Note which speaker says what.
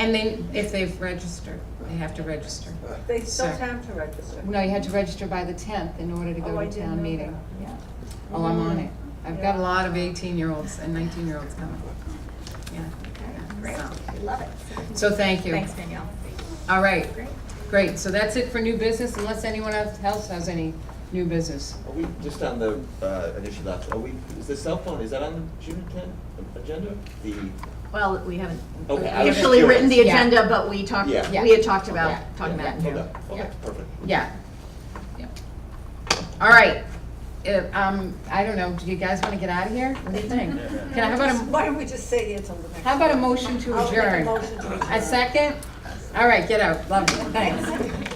Speaker 1: And then if they've registered, they have to register.
Speaker 2: They still
Speaker 1: Sir.
Speaker 2: have to register.
Speaker 3: No, you had to register by the tenth in order to
Speaker 2: Oh,
Speaker 3: go
Speaker 2: I
Speaker 3: to
Speaker 2: didn't
Speaker 3: town
Speaker 2: know
Speaker 3: meeting.
Speaker 2: that.
Speaker 3: Yeah. Oh, I'm on it.
Speaker 1: I've got a lot of eighteen-year-olds and nineteen-year-olds coming. Yeah.
Speaker 4: Great,
Speaker 1: So-
Speaker 4: I love it.
Speaker 1: So thank you.
Speaker 4: Thanks, Danielle.
Speaker 1: All right,
Speaker 4: Great.
Speaker 1: great. So that's it for new business, unless anyone else has any new business.
Speaker 5: Are we, just on the uh, initial lapse, are we, is the cell phone, is that on the June tenth agenda? The,
Speaker 6: Well, we haven't
Speaker 5: okay, I was just
Speaker 6: officially written the
Speaker 5: curious.
Speaker 3: Yeah.
Speaker 6: agenda, but we talked, we
Speaker 5: Yeah.
Speaker 6: had talked about,
Speaker 3: Yeah.
Speaker 6: talked about it.
Speaker 5: Yeah, Okay,
Speaker 3: Yeah.
Speaker 5: okay, perfect.
Speaker 1: Yeah.
Speaker 3: Yeah.
Speaker 1: All right. Uh, Um, I don't know, do you guys want to get out of here? What do you think? Can I, how about a,
Speaker 2: Why don't we just say until the next?
Speaker 1: how about a motion to
Speaker 2: I'll make a
Speaker 1: adjourn?
Speaker 2: motion to
Speaker 1: A second? All right, get out. Love you. Thanks.